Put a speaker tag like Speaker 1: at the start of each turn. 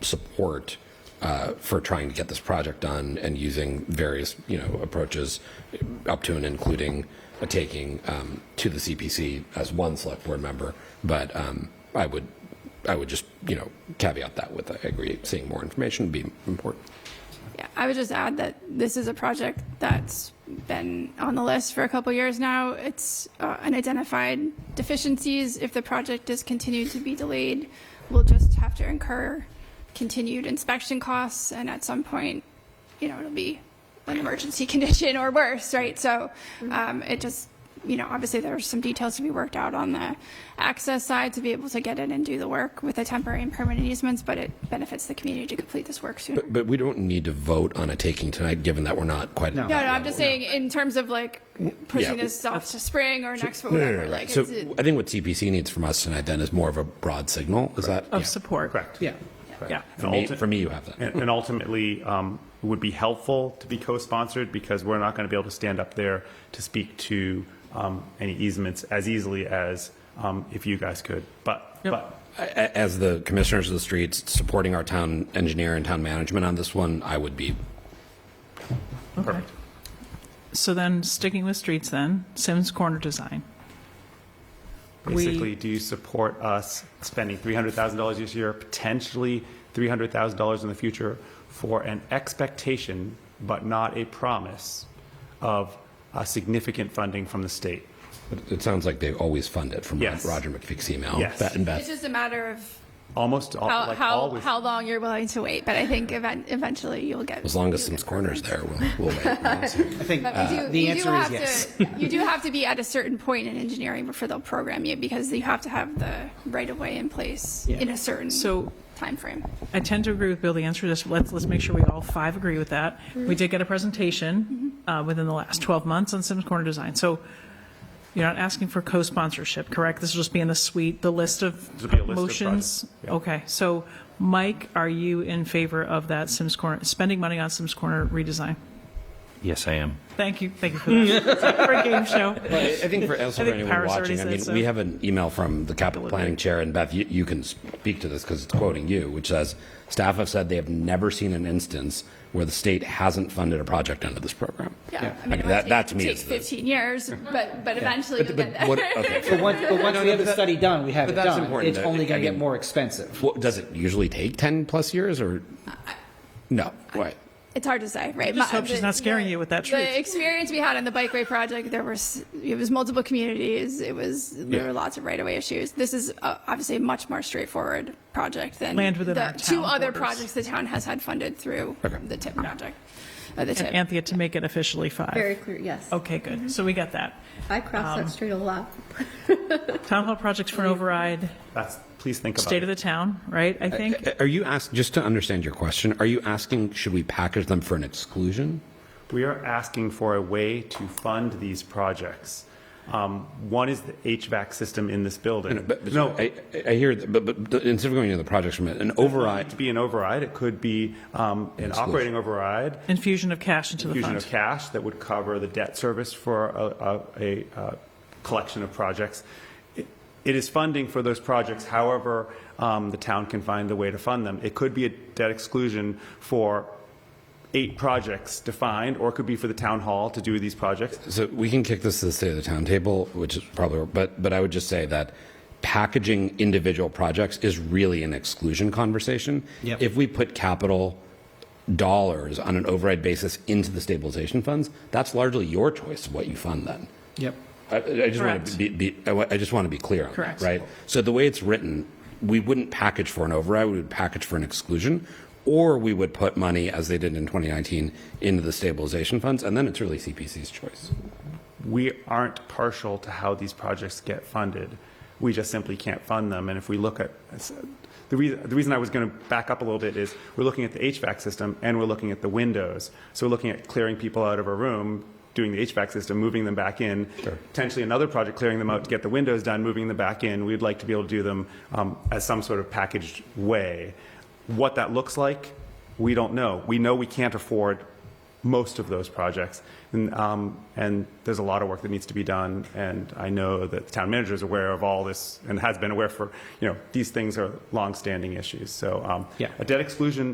Speaker 1: support uh, for trying to get this project done and using various, you know, approaches up to and including a taking um, to the CPC as one select board member. But um, I would, I would just, you know, caveat that with, I agree, seeing more information would be important.
Speaker 2: Yeah, I would just add that this is a project that's been on the list for a couple years now. It's uh, unidentified deficiencies. If the project is continued to be delayed, we'll just have to incur continued inspection costs, and at some point, you know, it'll be an emergency condition or worse, right? So um, it just, you know, obviously there are some details to be worked out on the access side to be able to get in and do the work with the temporary and permanent easements, but it benefits the community to complete this work sooner.
Speaker 1: But we don't need to vote on a taking tonight, given that we're not quite.
Speaker 2: No, no, I'm just saying in terms of like pushing
Speaker 1: Yeah.
Speaker 2: this off to spring or next,
Speaker 1: No, no, no,
Speaker 2: whatever,
Speaker 1: no.
Speaker 2: like
Speaker 1: So uh,
Speaker 2: it's, it-
Speaker 1: I think what CPC needs from us tonight then is more of a broad signal. Is that?
Speaker 3: of support.
Speaker 4: Correct.
Speaker 3: Yeah. Yeah.
Speaker 4: And
Speaker 1: For me,
Speaker 4: ulti-
Speaker 1: for me, you have that.
Speaker 4: And and ultimately, um, it would be helpful to be co-sponsored because we're not going to be able to stand up there to speak to um, any easements as easily as um, if you guys could. But, but
Speaker 1: A- a- As the commissioners of the streets, supporting our town engineer and town management on this one, I would be,
Speaker 4: perfect.
Speaker 3: So then, sticking with streets, then Sims Corner Design. We-
Speaker 4: Basically, do you support us spending $300,000 this year, potentially $300,000 in the future for an expectation, but not a promise of uh, significant funding from the state?
Speaker 1: it- it sounds like they always fund it from
Speaker 4: Yes.
Speaker 1: Roger McPhee's email.
Speaker 4: Yes.
Speaker 1: Bat and Beth.
Speaker 2: it's just a matter of
Speaker 4: Almost, all-
Speaker 2: how,
Speaker 4: Oh, like
Speaker 2: how,
Speaker 4: always.
Speaker 2: how long you're willing to wait. But I think event, eventually you'll get.
Speaker 1: As long as some corners Uh, there, we'll, we'll wait.
Speaker 5: I think uh,
Speaker 2: But we do,
Speaker 5: the
Speaker 2: you do
Speaker 5: answer
Speaker 2: have
Speaker 5: is yes.
Speaker 2: to, you do have to be at a certain point in engineering before they'll program you because you have to have the right of way in place in a certain
Speaker 3: So-
Speaker 2: timeframe.
Speaker 3: I tend to agree with Bill. The answer is let's let's make sure we all five agree with that. We did get a presentation uh, within the last 12 months on Sims Corner Design. So you're not asking for co-sponsorship, correct? This will just be in the suite, the list of
Speaker 4: This will be a list of
Speaker 3: motions.
Speaker 4: projects, yeah.
Speaker 3: Okay. So Mike, are you in favor of that Sims Corner spending money on Sims Corner redesign?
Speaker 6: Yes, I am.
Speaker 3: Thank you. Thank you for that. for a game show.
Speaker 1: Well, I I think for, also
Speaker 3: I
Speaker 1: for
Speaker 3: think
Speaker 1: anyone
Speaker 3: Paris already
Speaker 1: watching, I
Speaker 3: said
Speaker 1: mean,
Speaker 3: so.
Speaker 1: we have an email from the capital planning chair, and Beth, you, you can speak to this because it's quoting you, which says, "Staff have said they have never seen an instance where the state hasn't funded a project under this program."
Speaker 2: Yeah.
Speaker 1: I mean,
Speaker 2: it might
Speaker 1: that-
Speaker 2: take-
Speaker 1: that to me
Speaker 2: take
Speaker 1: is the-
Speaker 2: 15 years, but, but eventually you'll get
Speaker 1: But
Speaker 2: there.
Speaker 1: what, okay,
Speaker 5: But once, but once we have the study done, we have
Speaker 1: but
Speaker 5: it
Speaker 1: that's
Speaker 5: done.
Speaker 1: important
Speaker 5: It's
Speaker 1: that-
Speaker 5: only
Speaker 1: I
Speaker 5: going to get
Speaker 1: mean-
Speaker 5: more expensive.
Speaker 1: what, does it usually take ten plus years or? No, what?
Speaker 2: It's hard to say, right?
Speaker 3: just
Speaker 2: My-
Speaker 3: hope she's not scaring you with that truth.
Speaker 2: The experience we had on the bikeway project, there was it was multiple communities. It was there
Speaker 1: Yeah.
Speaker 2: were lots of right of way issues. This is uh, obviously a much more straightforward project than
Speaker 3: Land within
Speaker 2: the
Speaker 3: our town
Speaker 2: two other
Speaker 3: borders.
Speaker 2: projects the town has had funded through the tip project. Uh, the tip.
Speaker 3: Anthea, to make it officially five.
Speaker 7: Very clear, yes.
Speaker 3: Okay, good. So we got that.
Speaker 7: I cross that street a lot.
Speaker 3: Town hall projects for an override,
Speaker 4: That's, please think about it.
Speaker 3: state of the town, right? I think.
Speaker 1: Are you ask just to understand your question? Are you asking should we package them for an exclusion?
Speaker 4: We are asking for a way to fund these projects. Um, One is the HVAC system in this building.
Speaker 1: But,
Speaker 4: No,
Speaker 1: no, I, I- I hear, that, but, but instead of going into the projects from an
Speaker 4: it
Speaker 1: override,
Speaker 4: could be an override, it could be um, an operating override,
Speaker 3: Infusion of cash into the
Speaker 4: infusion
Speaker 3: fund.
Speaker 4: of cash that would cover the debt service for a- a, a, uh collection of projects. It it is funding for those projects, however, um, the town can find the way to fund them. It could be a debt exclusion for eight projects defined, or it could be for the town hall to do these projects.
Speaker 1: So we can kick this to the state of the town table, which is probably, but, but I would just say that packaging individual projects is really an exclusion conversation.
Speaker 5: Yep.
Speaker 1: If we put capital dollars on an override basis into the stabilization funds, that's largely your choice of what you fund then.
Speaker 5: Yep.
Speaker 1: I, I just want to
Speaker 3: Correct.
Speaker 1: be, be, I wa- I just want to be clear on
Speaker 3: Correct.
Speaker 1: that, right? So the way it's written, we wouldn't package for an override, we would package for an exclusion, or we would put money, as they did in 2019, into the stabilization funds, and then it's really CPC's choice.
Speaker 4: we aren't partial to how these projects get funded. We just simply can't fund them. And if we look at, the reason, the reason I was going to back up a little bit is we're looking at the HVAC system and we're looking at the windows. So we're looking at clearing people out of a room, doing the HVAC system, moving them back in, potentially another project, clearing them out to get the windows done, moving them back in. We'd like to be able to do them um, as some sort of packaged way. What that looks like, we don't know. We know we can't afford most of those projects. And, um, and there's a lot of work that needs to be done, and I know that the town manager is aware of all this and has been aware for, you know, these things are longstanding issues. So, um, yeah, a debt exclusion